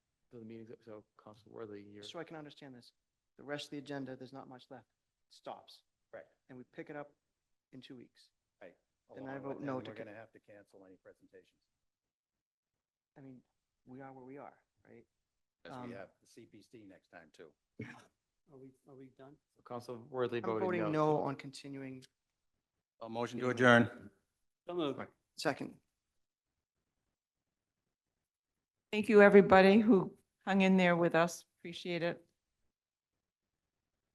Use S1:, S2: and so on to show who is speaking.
S1: the meetings, that- so Council Worthy, you're,
S2: so I can understand this, the rest of the agenda, there's not much left, stops,
S3: Right.
S2: and we pick it up in two weeks. Then
S3: along
S2: I
S3: with
S2: vote
S3: that,
S2: no to
S3: We're
S2: con-
S3: going to have to cancel any presentations.
S2: I mean, we are where we are, right?
S3: Because
S2: Um,
S3: we have the CPC next time too.
S4: Are we, are we done?
S1: Council Worthy
S2: I'm
S1: voted
S2: voting
S1: no.
S2: no on continuing,
S3: A motion to adjourn.
S4: So moved.
S2: second.
S5: Thank you, everybody who hung in there with us. Appreciate it.